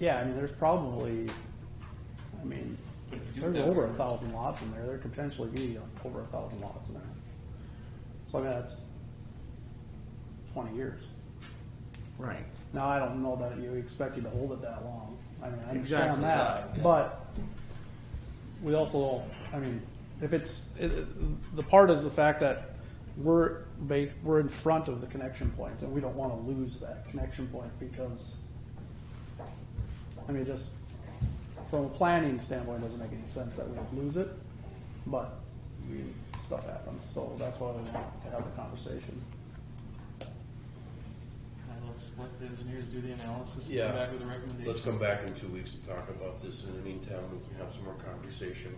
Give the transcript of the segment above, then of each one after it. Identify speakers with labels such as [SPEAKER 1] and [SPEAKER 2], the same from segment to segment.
[SPEAKER 1] Yeah, I mean, there's probably, I mean,
[SPEAKER 2] But if you do it
[SPEAKER 1] there's
[SPEAKER 2] that
[SPEAKER 1] over a
[SPEAKER 2] way-
[SPEAKER 1] thousand lots in there, there could potentially be over a thousand lots in there. So I mean, that's twenty years.
[SPEAKER 3] Right.
[SPEAKER 1] Now, I don't know that you expect you to hold it that long. I mean, I understand
[SPEAKER 3] Exactly.
[SPEAKER 2] Side, yeah.
[SPEAKER 1] that, but we also, I mean, if it's, it- it- the part is the fact that we're, ba- we're in front of the connection point, and we don't wanna lose that connection point because, I mean, just from a planning standpoint, it doesn't make any sense that we would lose it, but we, stuff happens, so that's why we want to have the conversation.
[SPEAKER 2] And let's let the engineers do the analysis and
[SPEAKER 4] Yeah.
[SPEAKER 2] come back with a recommendation.
[SPEAKER 4] Let's come back in two weeks to talk about this. In the meantime, we can have some more conversation.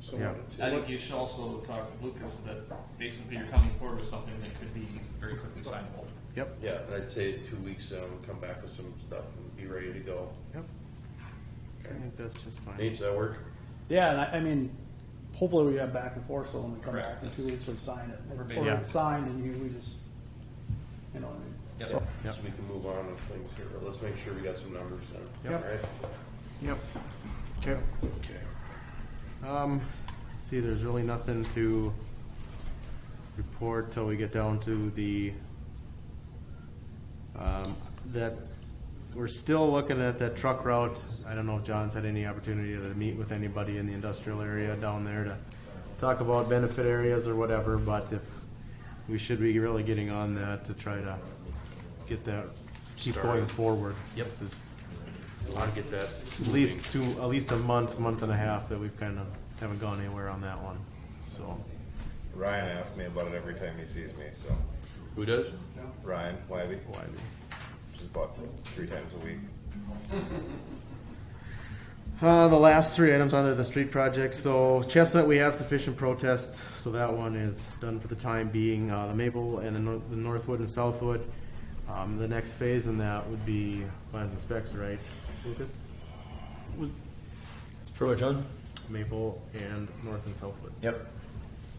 [SPEAKER 4] So
[SPEAKER 3] Yeah.
[SPEAKER 2] I think you should also talk with Lucas that basically you're coming forward with something that could be very quickly signable.
[SPEAKER 3] Yep,
[SPEAKER 4] Yeah, and I'd say two weeks, um, come back with some stuff and be ready to go.
[SPEAKER 3] yep. I think that's just fine.
[SPEAKER 4] Nate, does that work?
[SPEAKER 1] Yeah, and I, I mean, hopefully we have back and forth, so when we come
[SPEAKER 2] Correct,
[SPEAKER 1] back in two weeks,
[SPEAKER 2] that's-
[SPEAKER 1] we sign it.
[SPEAKER 2] We're
[SPEAKER 1] Or
[SPEAKER 2] basically-
[SPEAKER 1] it's signed and you, we just, you know, what I mean?
[SPEAKER 2] Yes,
[SPEAKER 1] So-
[SPEAKER 2] sir.
[SPEAKER 4] So
[SPEAKER 3] Yep.
[SPEAKER 4] we can move on with things here, but let's make sure we got some numbers then.
[SPEAKER 3] Yep.
[SPEAKER 4] All right?
[SPEAKER 3] Yep. Okay.
[SPEAKER 4] Okay.
[SPEAKER 3] Um, let's see, there's really nothing to report till we get down to the, um, that, we're still looking at that truck route. I don't know if John's had any opportunity to meet with anybody in the industrial area down there to talk about benefit areas or whatever, but if, we should be really getting on that to try to get that, keep going
[SPEAKER 4] Started.
[SPEAKER 3] forward. Yep. This is
[SPEAKER 4] I'll get that.
[SPEAKER 3] at least two, at least a month, month and a half that we've kind of haven't gone anywhere on that one. So,
[SPEAKER 5] Ryan asks me about it every time he sees me. So
[SPEAKER 4] Who does?
[SPEAKER 5] Ryan Wybe,
[SPEAKER 3] why do-
[SPEAKER 5] just about three times a week.
[SPEAKER 3] Uh, the last three items under the street project. So Chestnut, we have sufficient protest, so that one is done for the time being. Uh, the Maple and the, Nor- the Northwood and Southwood. Um, the next phase in that would be plans and specs, right, Lucas?
[SPEAKER 6] For which one?
[SPEAKER 3] Maple and North and Southwood.
[SPEAKER 6] Yep.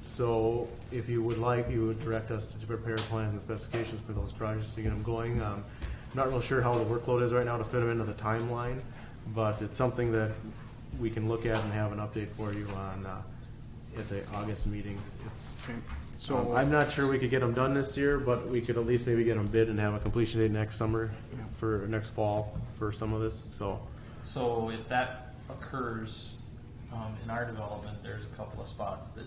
[SPEAKER 3] So if you would like, you would direct us to prepare plans and specifications for those projects to get them going. Um, Not real sure how the workload is right now to fit them into the timeline, but it's something that we can look at and have an update for you on, uh, at the August meeting. It's,
[SPEAKER 7] Okay,
[SPEAKER 3] um,
[SPEAKER 7] so,
[SPEAKER 3] I'm not sure we could get them done this year, but we could at least maybe get them bid and have a completion date next summer for, next fall for some of this, so.
[SPEAKER 2] So if that occurs um, in our development, there's a couple of spots that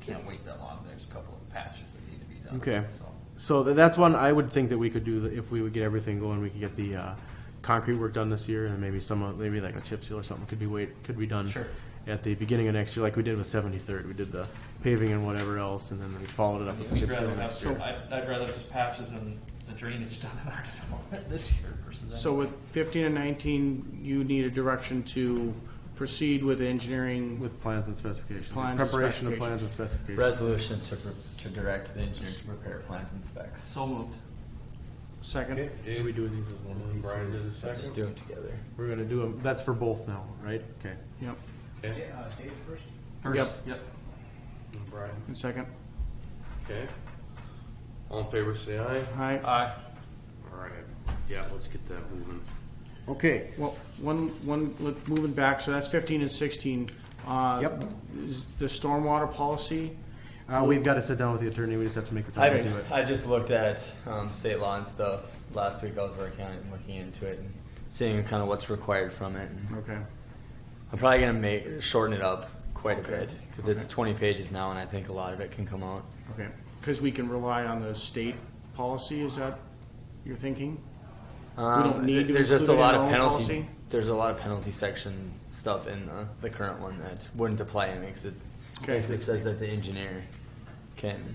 [SPEAKER 2] can't wait that long. There's a couple of patches that need to be done.
[SPEAKER 3] Okay.
[SPEAKER 2] So
[SPEAKER 3] So th- that's one I would think that we could do, th- if we would get everything going, we could get the, uh, concrete work done this year and maybe some, of- maybe like a chip seal or something could be wait, could be done.
[SPEAKER 2] Sure.
[SPEAKER 3] At the beginning of next year, like we did with seventy-third, we did the paving and whatever else and then we followed it
[SPEAKER 2] I
[SPEAKER 3] up
[SPEAKER 2] mean,
[SPEAKER 3] with
[SPEAKER 2] we'd
[SPEAKER 3] chip seal
[SPEAKER 2] rather
[SPEAKER 3] next
[SPEAKER 2] have,
[SPEAKER 3] year.
[SPEAKER 2] I'd, I'd rather have just patches and the drainage done in our development this year versus.
[SPEAKER 7] so with fifteen and nineteen, you need a direction to proceed with engineering.
[SPEAKER 3] With plans and specifications.
[SPEAKER 7] Plans and
[SPEAKER 3] Preparation of plans and specifications.
[SPEAKER 6] Resolution to, pre- to direct the engineer to prepare plans and specs.
[SPEAKER 2] So moved.
[SPEAKER 7] Second,
[SPEAKER 4] Okay,
[SPEAKER 3] Are we
[SPEAKER 4] Dave,
[SPEAKER 3] doing these as one of
[SPEAKER 4] and
[SPEAKER 3] these?
[SPEAKER 4] Brian did a
[SPEAKER 6] Just
[SPEAKER 4] second.
[SPEAKER 6] do it together.
[SPEAKER 3] We're gonna do them, that's for both now, right? Okay.
[SPEAKER 7] yep,
[SPEAKER 4] Okay,
[SPEAKER 2] First.
[SPEAKER 7] Yep.
[SPEAKER 2] Yep.
[SPEAKER 4] and Brian,
[SPEAKER 7] and second,
[SPEAKER 4] okay. All in favor, say aye.
[SPEAKER 7] aye.
[SPEAKER 2] Aye.
[SPEAKER 4] All right, yeah, let's get that moving.
[SPEAKER 3] Okay.
[SPEAKER 7] Well, one, one, look, moving back, so that's fifteen and sixteen. Uh,
[SPEAKER 3] Yep.
[SPEAKER 7] is The stormwater policy,
[SPEAKER 3] Uh, we've gotta sit down with the attorney, we just have to make the time to do
[SPEAKER 6] I,
[SPEAKER 3] it.
[SPEAKER 6] I just looked at um, state law and stuff. Last week I was working on it and looking into it and seeing kind of what's required from it. And
[SPEAKER 7] okay.
[SPEAKER 6] I'm probably going to make shorten it up quite a
[SPEAKER 7] Okay.
[SPEAKER 6] bit because it's
[SPEAKER 7] Okay.
[SPEAKER 6] 20 pages now and I think a lot of it can come out.
[SPEAKER 7] Okay, because we can rely on the state policy, is that your thinking?
[SPEAKER 6] Um,
[SPEAKER 7] don't need to
[SPEAKER 6] there's just a
[SPEAKER 7] include it in
[SPEAKER 6] lot
[SPEAKER 7] our
[SPEAKER 6] of
[SPEAKER 7] own
[SPEAKER 6] penalty.
[SPEAKER 7] policy?
[SPEAKER 6] There's a lot of penalty section stuff in the, the current one that wouldn't apply and makes it
[SPEAKER 7] Okay.
[SPEAKER 6] basically says that the engineer can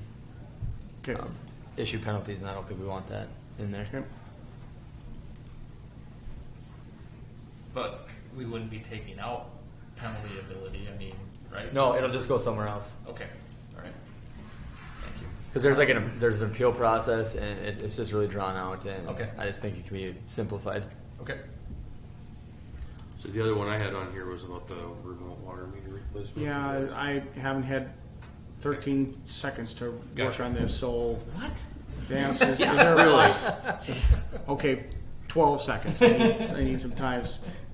[SPEAKER 7] Okay,
[SPEAKER 6] um, issue penalties, and I don't think we want that in there.
[SPEAKER 7] okay,
[SPEAKER 2] But we wouldn't be taking out penalty ability. I mean, right?
[SPEAKER 6] No, it'll just go somewhere else
[SPEAKER 2] Okay. All right. Thank you.
[SPEAKER 6] because there's like an there's an appeal process, and it, it's just really drawn out. And
[SPEAKER 2] Okay.
[SPEAKER 6] I just think it can be simplified.
[SPEAKER 2] Okay.
[SPEAKER 4] So the other one I had on here was about the remote water meter replacement.
[SPEAKER 7] yeah, I haven't had thirteen seconds to work
[SPEAKER 4] Gotcha.
[SPEAKER 7] on this, so.
[SPEAKER 2] What?
[SPEAKER 7] Dan says, is there a- Okay, twelve seconds. I need, I need some times.